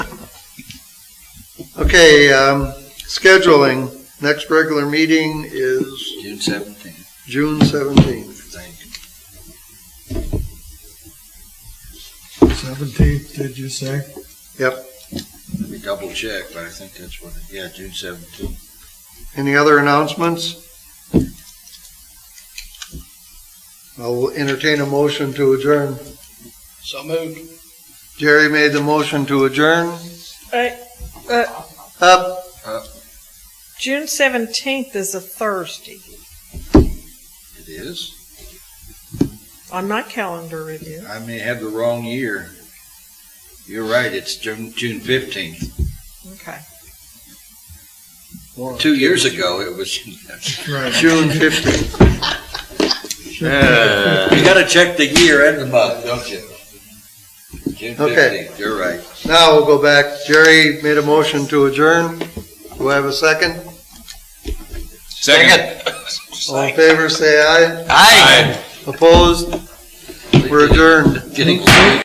Okay, um, scheduling, next regular meeting is June seventeenth, June seventeenth. thank you. Seventeenth, did you say? Let me double check, but I think that's what, it- yeah, June seventeenth. Any other announcements? I'll entertain a motion to adjourn. So moved. Jerry made the motion to adjourn. I- uh, Up, June seventeenth is a Thursday. It is. On my calendar, it is. I may have the wrong year. You're right, it's June, June fifteenth. Okay. Two years ago, it was. Right. June fifteenth. You gotta check the year and the month, don't you? June Okay. fifteenth, you're right. Now we'll go back. Jerry made a motion to adjourn. Do I have a second? Second. All in favor, say aye. Aye. Opposed? We're adjourned. Getting late.